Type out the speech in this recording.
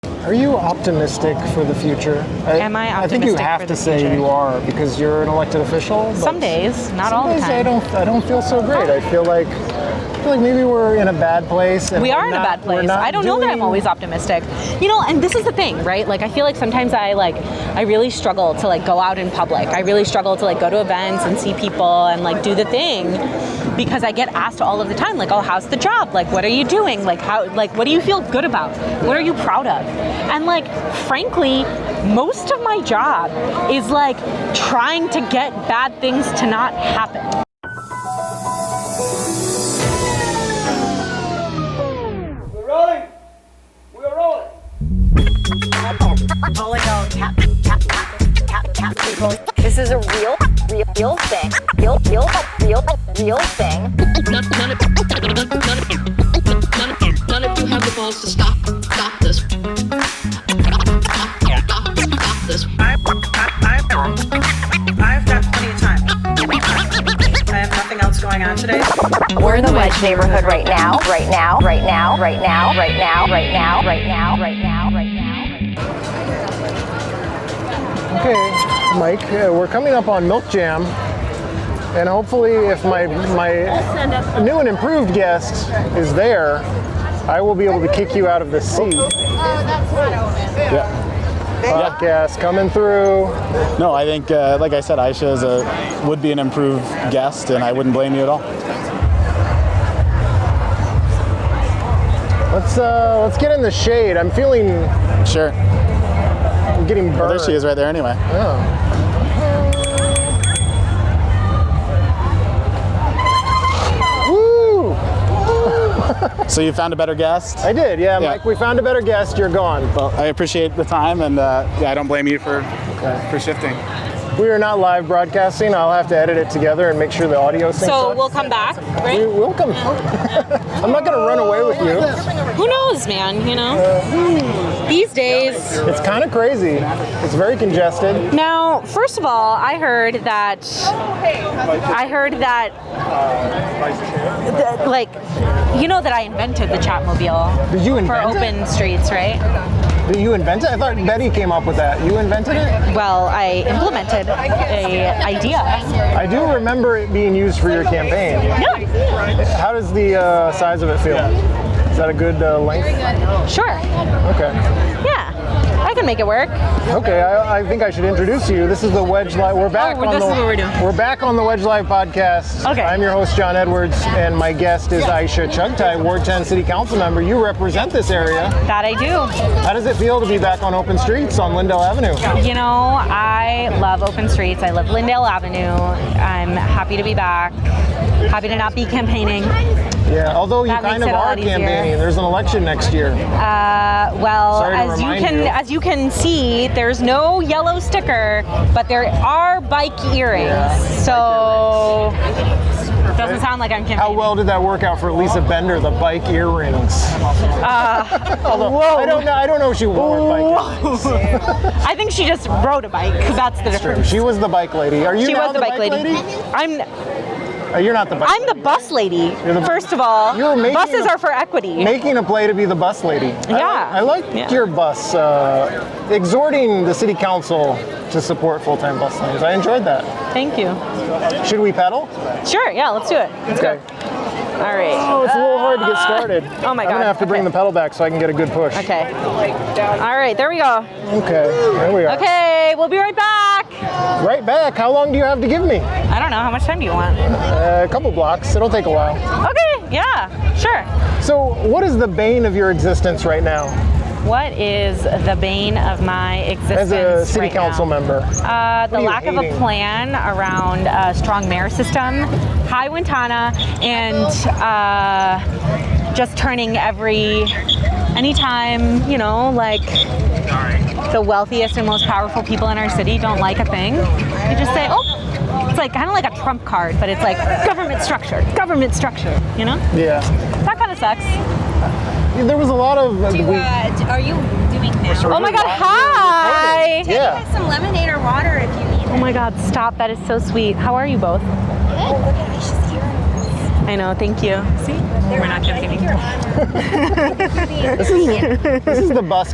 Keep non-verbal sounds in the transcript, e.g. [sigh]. Are you optimistic for the future? I, Am I I think you optimistic have for to the say future? you are because you're an elected official. but Some days, not some all the days time. I don't. I don't feel so great. I feel like. I feel like maybe we're in a bad place. And we we're are in a not- bad we're place. not I don't know that I'm doing- always optimistic. You know, and this is the thing, right? Like I feel like sometimes I like I really struggle to like go out in public. I really struggle to like go to events and see people and like do the thing because I get asked all of the time like, "Oh, how's the job? Like what are you doing? Like how like what do you feel good about? What are you proud of?" And like frankly, most of my job is like trying to get bad things to not happen. We're rolling. We're rolling. This is a real, real, real thing. Real, real, real, real thing. none, none, of, none, of, none, of, none, of, none of you have the balls to stop, stop this. Stop, stop, stop this. I've, I've, I've, I've got plenty of time. I have nothing else going on today. We're in the wedge neighborhood right now. Right now. Right now. Right now. Right now. Right now. Right now. Right now. Right now. Right now. Okay, Mike, uh, we're coming up on Milk Jam, and hopefully, if my my new and improved guest is there, I will be able to kick you out of the seat. Yeah. Podcast coming through. No, I think, uh, like I said, Aisha is a, would be an improved guest, and I wouldn't blame you at all. Let's uh, let's get in the shade. I'm feeling Sure. I'm getting burned. Well, there she is right there anyway. Woo! [laughs] So you found a better guest. I did, yeah, Yeah. Mike. We found a better guest. You're gone. Well, I appreciate the time, and uh, yeah, I don't blame you for for shifting. We are not live broadcasting. I'll have to edit it together and make sure the audio syncs So up. we'll Oh. come back, right? You're welcome. [laughs] I'm not gonna run away with you. Who knows, man? You know? These days. It's kind of crazy. It's very congested. Now, first of all, I heard that. I heard that. that, like, you know that I invented the Chatmobile Did you for invent open streets, right? it? Did you invent it? I thought Betty came up with that. You invented it? Well, I implemented a idea. I do remember it being used for your campaign. Yeah, How does the uh, size of it feel? Is that a good uh, length? sure. Okay. Yeah, I can make it work. Okay, I, I think I should introduce you. This is the Wedge Live. We're back Oh, on this the is what we're doing. we're back on the Wedge Live podcast. Okay. I'm your host John Edwards, and my guest is Aisha Chugtai, Ward 10 City Council member. You represent this area. That I do. How does it feel to be back on open streets on Lindell Avenue? You know, I love open streets. I love Lindale Avenue. I'm happy to be back. Happy to not be campaigning. Yeah, although you That kind makes of it a are lot easier. campaigning. There's an election next year. Uh, well, Sorry to as you remind can you. as you can see, there's no yellow sticker, but there are bike earrings. Yeah, so doesn't sound like I'm How Oh, campaigning. well did that work out for Lisa Bender, the bike earrings? [laughs] Although, Uh, whoa. I don't know. I don't know if she wore bike earrings. I think she just rode a bike because that's the difference. She was the bike lady. Are you She now was the bike lady. I'm Uh, you're not the bike. I'm the bus lady. You're the- First of all, You're making buses a- are for equity. Making a play to be the bus lady. Yeah. I like, I like Yeah. your bus, uh, exhorting the city council to support full time bus lanes. I enjoyed that. Thank you. Should we pedal? Sure. Yeah. Let's do it. Let's Okay. go. All right. Oh, it's a little hard to get started. Oh my I'm gonna God. have to bring Okay. the pedal back so I can get a good push. Okay. All right. There we go. Okay, there we are. Okay. We'll be right back. Right back. How long do you have to give me? I don't know. How much time do you want? Uh, a couple blocks. It'll take a while. Okay, yeah, sure. So, what is the bane of your existence right now What is the bane of my as existence? a city right council now? member? Uh, the are you lack of a hating? plan around a strong mayor system. Hi, Wintana. And uh, just turning every, anytime, you know, like the wealthiest and most powerful people in our city don't like a thing, they just say, oh, it's like kind of like a trump card, but it's like government structure, government structure, you know? Yeah. That kind of sucks. There was a lot of. we- Uh, are you doing now? Oh my god, hi! [laughs] yeah. Some lemonade or water if you need. Oh my god, stop. That is so sweet. How are you both? Oh, look at Aisha's here. I know, thank you. See? We're not joking. This is the bus